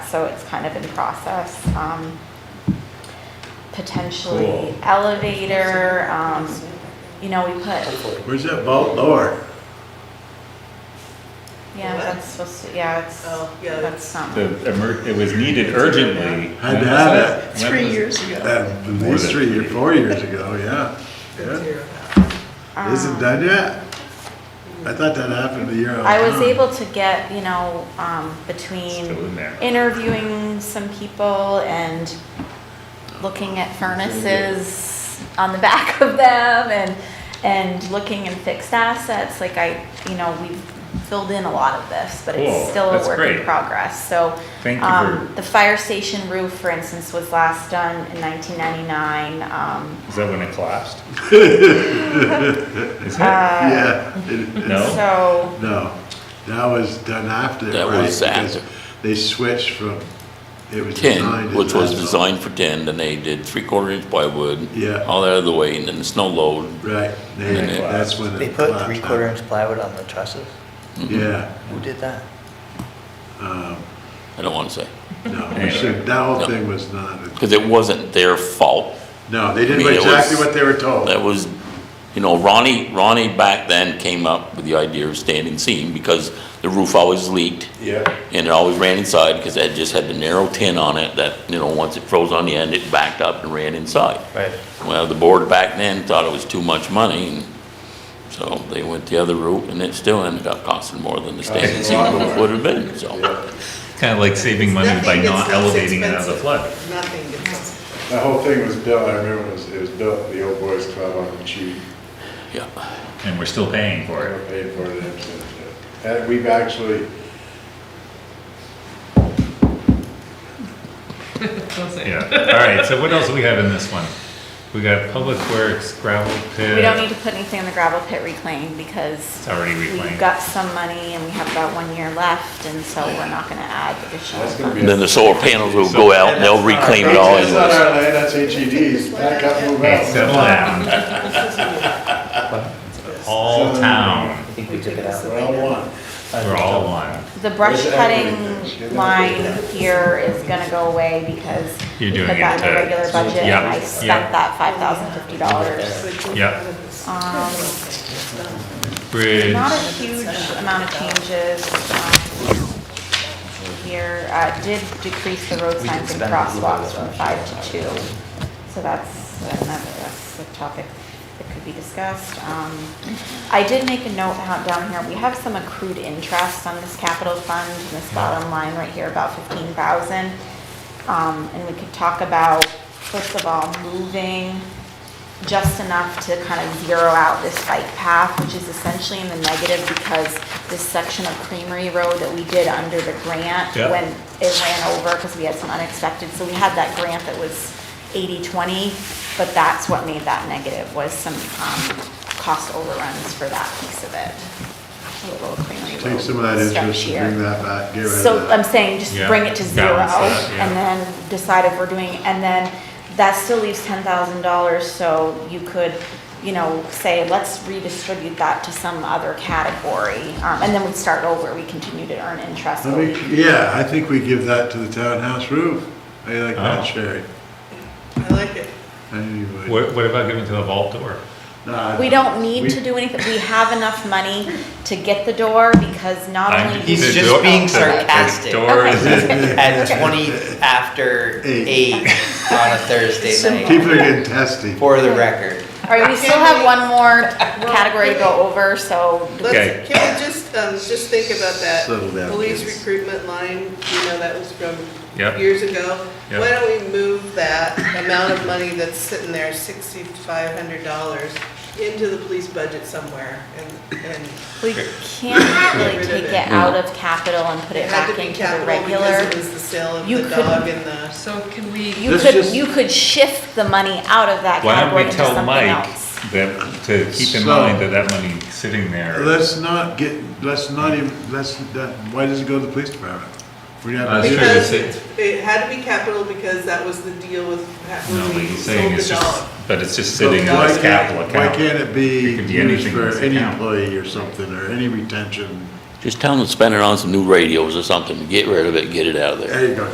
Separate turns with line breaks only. so it's kind of in process. Um, Potentially
Cool.
elevator, um, you know, we put,
Hopefully.
Where's that vault door?
yeah, that's supposed to, yeah, it's,
Oh, yeah,
that's not.
The, emer- it was needed urgently. When
Had to
was
have
that? When
Three
was-
years ago.
At
More
least
than
three
three.
or four years ago, yeah.
Good to
yeah.
hear about.
Isn't
um,
done yet? I thought that happened a year.
I was
ago.
able to get, you know, um, between
Still in there.
interviewing some people and looking at furnaces on the back of them and, and looking in fixed assets, like I, you know, we've filled in a lot of this, but
Cool,
it's still a
that's
work in
great.
progress, so.
Thank you
um,
for-
The fire station roof, for instance, was last done in nineteen ninety-nine, um,
Is that when it collapsed? Is
uh,
it?
Yeah. it-
No?
so,
No, that was done after, right?
That was
Because
after.
They switched from, it was designed.
Tin,
as
which was
asphalt.
designed for tin, then they did three-quarter inch plywood.
Yeah.
All that other way, and then the snow load.
Right, they,
And
it-
that's when it.
They put
collapsed.
three-quarter inch plywood on the trusses?
Yeah,
Who did that?
um,
I don't want to say,
no, we
Anyway.
should, that whole
No.
thing was not,
because it wasn't their fault.
no, they did
I mean, it
exactly
was-
what they were told.
That was, you know, Ronnie, Ronnie back then came up with the idea of standing seam because the roof always leaked
Yeah.
and it always ran inside because it just had the narrow tin on it that, you know, once it froze on the end, it backed up and ran inside.
Right.
Well, the board back then thought it was too much money, and so they went the other route, and it still ended up costing more than the standing
Costing a lot
seam
more.
would have been, so.
Kind of like saving money by
Nothing
not
gets less
elevating it out of the
expensive.
flood.
Nothing gets less
The whole thing was built, I remember it was, it was built at the old boys club on the cheap.
Yeah,
And we're still paying
We
for it.
were paid for it. and so- And we've actually,
Yeah. All right, so what else do we have in this one? We got Public Works gravel pit.
we don't need to put anything in the gravel pit reclaim because
It's already
We've
reclaimed.
got some money and we have about one year left, and so we're not gonna add additional.
that's gonna
and
be.
then the solar panels will go out, and they'll reclaim it all
That's not
anyways.
our land, that's HED's, back up, move
Hey,
out.
settle down. All town,
I think we took it out.
We're all one.
we're all one.
The brush
Where's
cutting
everything?
line here is gonna go away because
You're
we put
doing
that
it
in the
to-
regular budget and
yeah,
I
yeah.
spent that five thousand fifty dollars.
Yep.
Um,
Bridge,
not a huge amount of changes, um, here, uh, did decrease the road
We
signs
did
and
spend a little bit of
crosswalks from
that.
five to two. So that's another, that's a topic that could be discussed. Um, I did make a note out down here, we have some accrued interest on this capital fund, and this bottom line right here, about fifteen thousand. Um, and we could talk about, first of all, moving just enough to kind of zero out this bike path, which is essentially in the negative because this section of Creamery Road that we did under the grant,
Yeah.
when it ran over because we had some unexpected, so we had that grant that was 80/20, but that's what made that negative, was some um, cost overruns for that piece of it. The Little Creamery Road
Take some of that interest
stretch
and
here.
bring that back, get rid of that.
So I'm saying, just
Yeah,
bring it to zero,
balance that, yeah.
and then decide if we're doing, and then that still leaves ten thousand dollars, so you could, you know, say, let's redistribute that to some other category, um, and then we start over, we continue to earn interest.
I think- yeah, I think we give that to the townhouse roof. I like
Oh.
that, Sherry.
I like it.
I knew you would.
what, what about giving to the vault door?
Nah,
We don't need
we-
to do anything, we have enough money to get the door, because not
I'm-
only. do
the
we-
He's just
door-
being
the-
sarcastic.
The door is
At twenty after
Eight.
eight on a Thursday night,
People are getting testy.
for the record.
All right, we still have one more category to go over, so
Okay.
Let's, can we just, um, just think about that
Settle down,
police
kids.
recruitment line, you know, that was from
Yep.
years ago?
Yep.
Why don't we move that amount of money that's sitting there, sixty-five hundred dollars, into the police budget somewhere and, and
We can't really
Get rid of
take
it.
it out of capital and put
it
it
had
back
to be
into the
capital because it
regular.
was the sale of
You
the
could-
dog and the,
So can we?
You
This
could,
just-
you could shift the money out of that
Why don't
category
we
into
tell
something
Mike
else.
that, to keep in
So-
mind that that money sitting there,
Let's not get, let's not even, let's, that- why does it go to the police department? We're not.
That's true,
Because-
because
it's-
it it had to be capital because that was the deal with,
no,
when
but
we
he's
sold
saying it's
the dog.
just, but it's just
So
sitting in
why
this
can't-
capital
Why
account.
can't it be
It could be
used
anything in
for
this
any
account.
employee or something, or any retention?
Just tell them to spend it on some new radios or something, get rid of it, get it out of there.
There you go,